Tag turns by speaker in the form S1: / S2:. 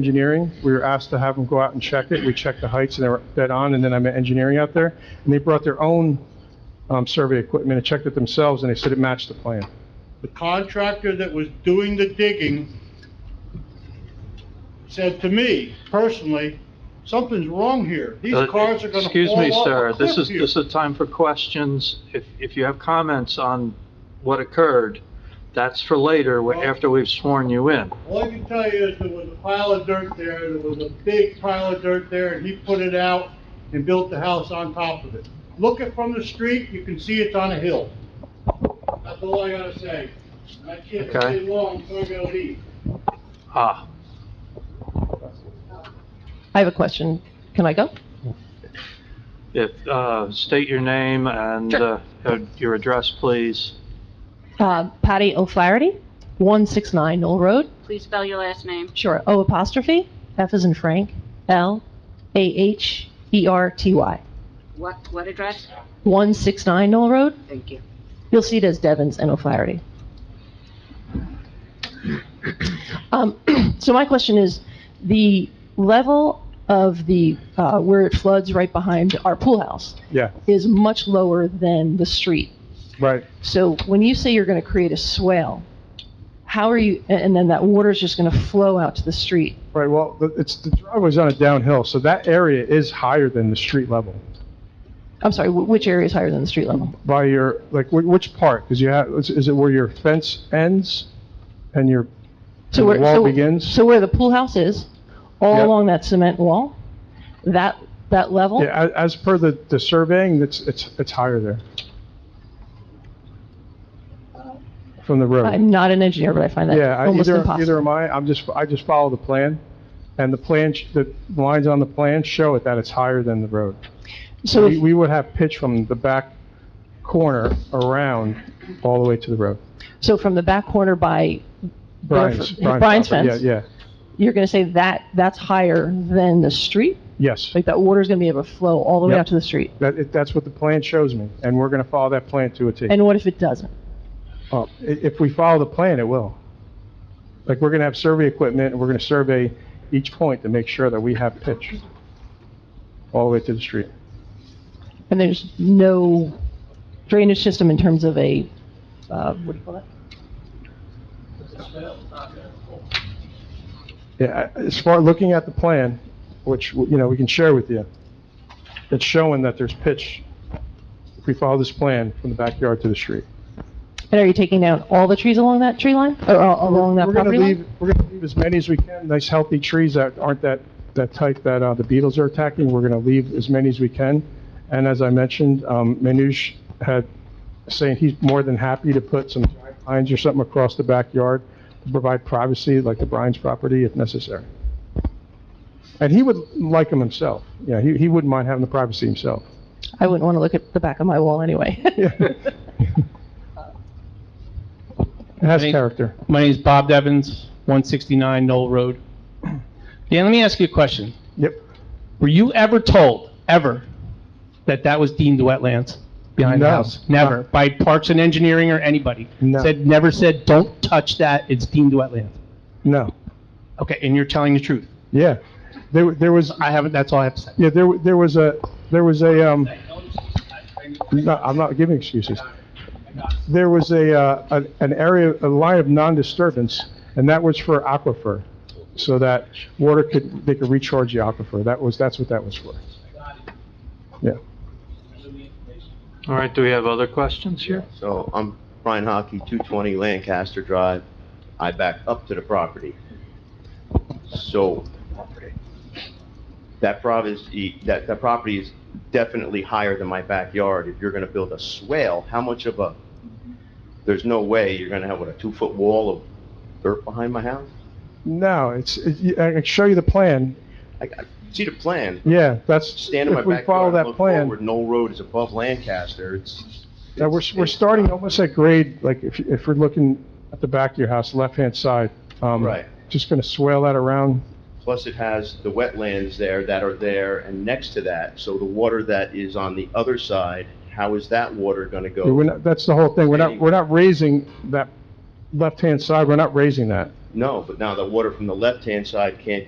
S1: engineering. We were asked to have them go out and check it. We checked the heights and they were dead on, and then I met engineering out there. And they brought their own um, survey equipment and checked it themselves, and they said it matched the plan.
S2: The contractor that was doing the digging said to me personally, something's wrong here. These
S3: Uh,
S2: cars are gonna
S3: Excuse me,
S2: fall
S3: sir,
S2: off a
S3: this
S2: cliff
S3: is,
S2: here.
S3: this is time for questions. If, if you have comments on what occurred, that's for later, wh- after we've sworn you in.
S2: All I can tell you is there was a pile of dirt there, there was a big pile of dirt there, and he put it out and built the house on top of it. Look it from the street, you can see it's on a hill. That's all I gotta say. And I can't
S3: Okay.
S2: stay long, so I gotta leave.
S3: Ah,
S4: I have a question. Can I go?
S3: if, uh, state your name and, uh,
S4: Sure.
S3: uh, your address, please.
S4: Uh, Patty O'Flaherty, 169 Knoll Road.
S5: Please spell your last name.
S4: Sure, O apostrophe, F is in Frank, L, A H, E R T Y.
S5: What, what address?
S4: 169 Knoll Road.
S5: Thank you.
S4: You'll see it as Devens and O'Flaherty. Um, So my question is, the level of the, uh, where it floods right behind our pool house
S1: Yeah,
S4: is much lower than the street.
S1: right.
S4: So when you say you're going to create a swale, how are you, and then that water's just going to flow out to the street?
S1: Right, well, the- it's, the driveway's on a downhill, so that area is higher than the street level.
S4: I'm sorry, wh- which area is higher than the street level?
S1: By your, like, wh- which part? Because you have, is- is it where your fence ends and your,
S4: So
S1: The
S4: where-
S1: wall
S4: so-
S1: begins?
S4: So where the pool house is,
S1: Yeah.
S4: all along that cement wall, that, that level?
S1: yeah, a- as per the, the surveying, it's, it's, it's higher there. From the road.
S4: I'm not an engineer, but I find
S1: Yeah,
S4: that
S1: I-
S4: almost
S1: either, either
S4: impossible.
S1: am I. I'm just, I just follow the plan, and the plan, sh- the lines on the plan show it that it's higher than the road.
S4: So
S1: We,
S4: if-
S1: we would have pitch from the back corner around all the way to the road.
S4: so from the back corner by,
S1: Brian's,
S4: Bedford- Brian's
S1: property,
S4: fence.
S1: Yeah, yeah,
S4: you're going to say that, that's higher than the street?
S1: yes.
S4: Like that water's going to be able to flow all the way
S1: Yep.
S4: out to the street?
S1: That, it- that's what the plan shows me, and we're gonna follow that plan to a T.
S4: And what if it doesn't?
S1: Uh, i- If we follow the plan, it will. Like, we're gonna have survey equipment, and we're gonna survey each point to make sure that we have pitch all the way to the street.
S4: And there's no drainage system in terms of a, uh, what do you call that?
S1: Yeah, I- as far, looking at the plan, which, you know, we can share with you, it's showing that there's pitch, if we follow this plan, from the backyard to the street.
S4: And are you taking down all the trees along that tree line, or uh, along that
S1: We're gonna
S4: property
S1: leave,
S4: line?
S1: we're gonna leave as many as we can, nice healthy trees that aren't that, that type that, uh, the beetles are attacking. We're gonna leave as many as we can. And as I mentioned, um, Manoj had, saying he's more than happy to put some giant pines or something across the backyard to provide privacy, like the Bryan's property, if necessary. And he would like them himself. Yeah, he, he wouldn't mind having the privacy himself.
S4: I wouldn't want to look at the back of my wall anyway.
S1: It has
S6: Any-
S1: character.
S6: My name is Bob Devens, 169 Knoll Road. Dan, let me ask you a question.
S1: Yep.
S6: Were you ever told, ever, that that was deemed wetlands behind the
S1: No.
S6: house? Never, by Parks and Engineering or anybody?
S1: No.
S6: Said, never said, don't touch that, it's deemed wetland?
S1: No.
S6: Okay, and you're telling the truth?
S1: Yeah. There, there was,
S6: I haven't, that's all I have to say.
S1: Yeah, there, w- there was a, there was a, um, no, I'm not giving excuses. There was a, uh, an- an area, a line of non-disturbance, and that was for aquifer, so that water could, they could recharge the aquifer. That was, that's what that was for. Yeah.
S3: All right, do we have other questions here?
S7: So I'm Brian Hockey, 220 Lancaster Drive. I back up to the property. So that property, that, that property is definitely higher than my backyard. If you're going to build a swale, how much of a, there's no way you're going to have, what, a two-foot wall of dirt behind my house?
S1: No, it's, it- you- I can show you the plan.
S7: I, I see the plan.
S1: Yeah, that's,
S7: Stand in my
S1: if we follow
S7: backyard,
S1: that
S7: look
S1: plan.
S7: forward, no road is above Lancaster. It's.
S1: Now, we're,
S7: it's-
S1: we're
S7: it's-
S1: starting almost at grade, like, if, if we're looking at the back of your house, left-hand side. um,
S7: Right.
S1: Just gonna swale that around.
S7: Plus, it has the wetlands there that are there and next to that, so the water that is on the other side, how is that water gonna
S1: Yeah, We're
S7: go?
S1: not, that's the whole thing. We're not, we're not raising that left-hand side, we're not raising that.
S7: No, but now the water from the left-hand side can't